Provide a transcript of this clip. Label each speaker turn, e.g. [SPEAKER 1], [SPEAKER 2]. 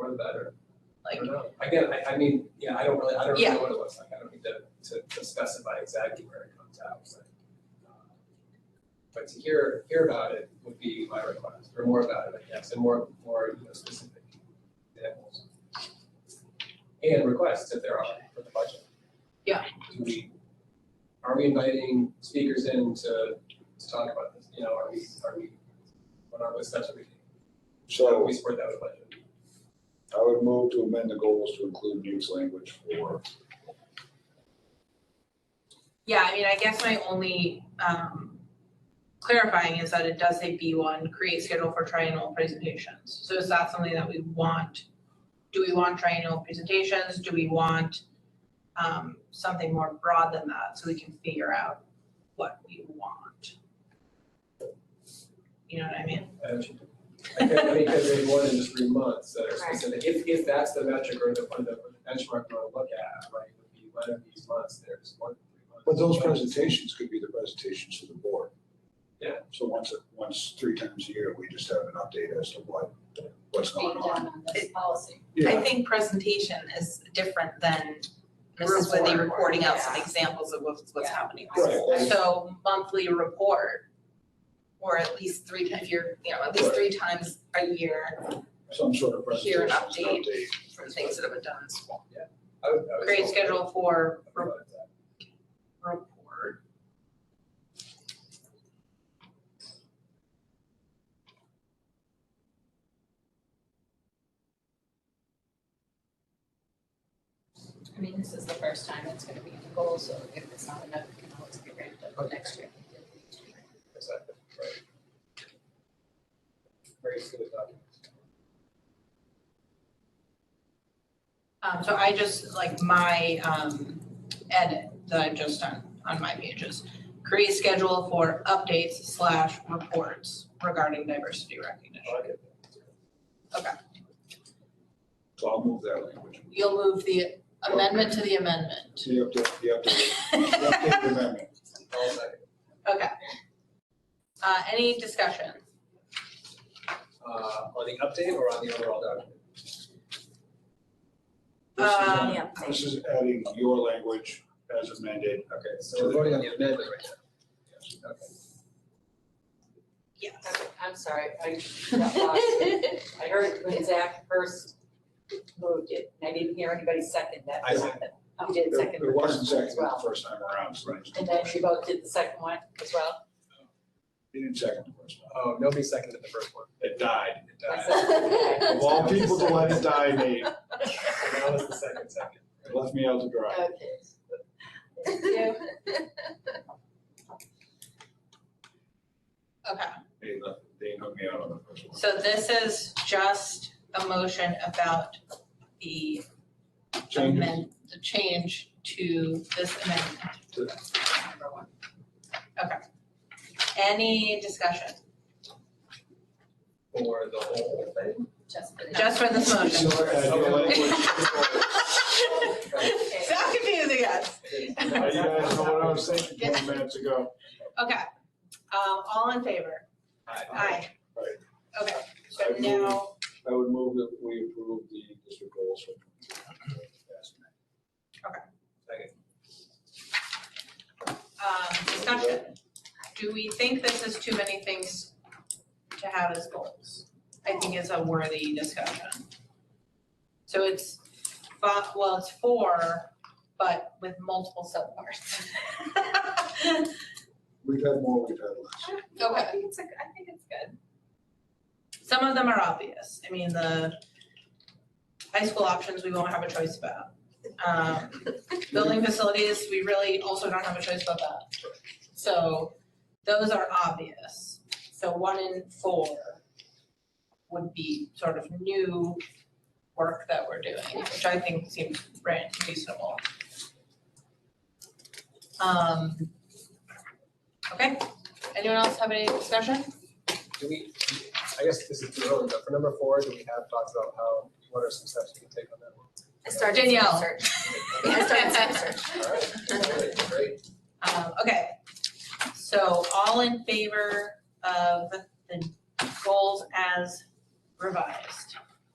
[SPEAKER 1] the better. I
[SPEAKER 2] Um, like,
[SPEAKER 1] don't know. Again, I, I mean, yeah, I don't really, I don't really
[SPEAKER 2] Yeah.
[SPEAKER 1] know what it looks like. I don't need to, to- to specify exactly where it comes out, but. uh, But to hear, hear about it would be my request, or more about it, I guess, and more, more, you know, specific examples. And requests if there are for the budget.
[SPEAKER 2] Yeah.
[SPEAKER 1] Do we, are we inviting speakers in to, to talk about this? You know, are we, are we, what are the steps are we taking? How do
[SPEAKER 3] So
[SPEAKER 1] we support that with budget?
[SPEAKER 3] I would move to amend the goals to include news language for,
[SPEAKER 2] yeah, I mean, I guess my only, um, clarifying is that it does say B one, create schedule for triennial presentations. So is that something that we want? Do we want triennial presentations? Do we want, um, something more broad than that so we can figure out what we want? You know what I mean?
[SPEAKER 1] I can't, I mean, because they one in just three months that are specific, if, if that's the metric or the, or the benchmark we're gonna look at, right, would be one of these months, there's one, three months.
[SPEAKER 3] but those presentations could be the presentations to the board.
[SPEAKER 1] Yeah.
[SPEAKER 3] So once, once, three times a year, we just have an update as to what, what's going
[SPEAKER 4] being
[SPEAKER 3] on.
[SPEAKER 4] done on this policy.
[SPEAKER 2] I
[SPEAKER 3] Yeah,
[SPEAKER 5] think presentation is different than Mrs.
[SPEAKER 2] Report.
[SPEAKER 5] Whitney reporting out some
[SPEAKER 4] Yeah.
[SPEAKER 5] examples of what's, what's
[SPEAKER 4] Yeah.
[SPEAKER 5] happening.
[SPEAKER 3] right, and-
[SPEAKER 5] So monthly report, or at least three, ti- if you're, you know, at least three times a year
[SPEAKER 3] some sort of
[SPEAKER 5] Here
[SPEAKER 3] presentation,
[SPEAKER 5] an
[SPEAKER 3] update.
[SPEAKER 5] from things that have been done in school.
[SPEAKER 1] I would, I would.
[SPEAKER 2] Create schedule for
[SPEAKER 1] I would
[SPEAKER 2] re-
[SPEAKER 1] like that.
[SPEAKER 2] report.
[SPEAKER 4] I mean, this is the first time it's gonna be in the goal, so if it's not enough, it can always be ramped up next year.
[SPEAKER 1] Exactly, right. Very uh, good documents.
[SPEAKER 2] Um, so I just, like, my, um, edit that I've just done on my pages, create schedule for updates slash reports regarding diversity recognition.
[SPEAKER 1] I like it.
[SPEAKER 3] So I'll move that language.
[SPEAKER 2] You'll move the amendment to the amendment.
[SPEAKER 3] To the update, the update, the update amendment.
[SPEAKER 1] All second.
[SPEAKER 2] Uh, any discussion?
[SPEAKER 1] Uh, on the update or on the overall document?
[SPEAKER 3] This is,
[SPEAKER 2] Um,
[SPEAKER 3] uh, This is adding your language as amended.
[SPEAKER 1] Okay, so we're voting on the amendment right now. Okay.
[SPEAKER 2] Yes.
[SPEAKER 4] I'm- I'm sorry, I got lost. I heard when Zach first moved it, and I didn't hear anybody second that.
[SPEAKER 1] I
[SPEAKER 4] You did
[SPEAKER 3] There
[SPEAKER 4] second.
[SPEAKER 3] there wasn't
[SPEAKER 4] the
[SPEAKER 3] second
[SPEAKER 4] first one as
[SPEAKER 3] the
[SPEAKER 4] well.
[SPEAKER 3] first time around, so it's-
[SPEAKER 4] And then you both did the second one as well.
[SPEAKER 3] He didn't second the first one.
[SPEAKER 1] Oh, nobody seconded the first one.
[SPEAKER 3] It died.
[SPEAKER 1] It died.
[SPEAKER 4] Okay.
[SPEAKER 3] Of all people to let it die, they
[SPEAKER 1] And that was the second second.
[SPEAKER 3] left me out to dry.
[SPEAKER 4] Thank you.
[SPEAKER 2] Okay,
[SPEAKER 3] They left, they hooked me out on the first one.
[SPEAKER 2] so this is just a motion about the
[SPEAKER 3] Changes
[SPEAKER 2] amend, the change to this amendment.
[SPEAKER 3] To-
[SPEAKER 2] Number one. Okay. Any discussion?
[SPEAKER 1] For the whole thing?
[SPEAKER 4] Just for the-
[SPEAKER 2] Just for this motion.
[SPEAKER 3] So, uh, your language-
[SPEAKER 4] Okay.
[SPEAKER 2] So confusing us.
[SPEAKER 3] Now You guys know what I was thinking twenty minutes ago.
[SPEAKER 2] Okay, um, all in favor? Aye.
[SPEAKER 3] Right.
[SPEAKER 2] Okay, so
[SPEAKER 3] I move-
[SPEAKER 2] now,
[SPEAKER 3] I would move that we approve the district goals. for-
[SPEAKER 2] um, discussion. Do we think this is too many things to have as goals? I think it's a worthy discussion. So it's fi- well, it's four, but with multiple subparts.
[SPEAKER 3] We've had more, we've had less.
[SPEAKER 2] Okay.
[SPEAKER 5] I think it's a, I think it's good.
[SPEAKER 2] Some of them are obvious. I mean, the high school options, we won't have a choice about. Um, building facilities, we really also don't have a choice about that. So those are obvious. So one in four would be sort of new work that we're doing, which I think seems rea- reasonable. Um, okay, anyone else have any discussion?
[SPEAKER 1] Do we, I guess this is too early, but for number four, do we have thoughts about how, what are some steps we can take on that one?
[SPEAKER 6] I started some
[SPEAKER 2] Danielle.
[SPEAKER 6] research. I started some research.
[SPEAKER 1] All right, great, great.
[SPEAKER 2] Um, okay, so all in favor of the goals as revised?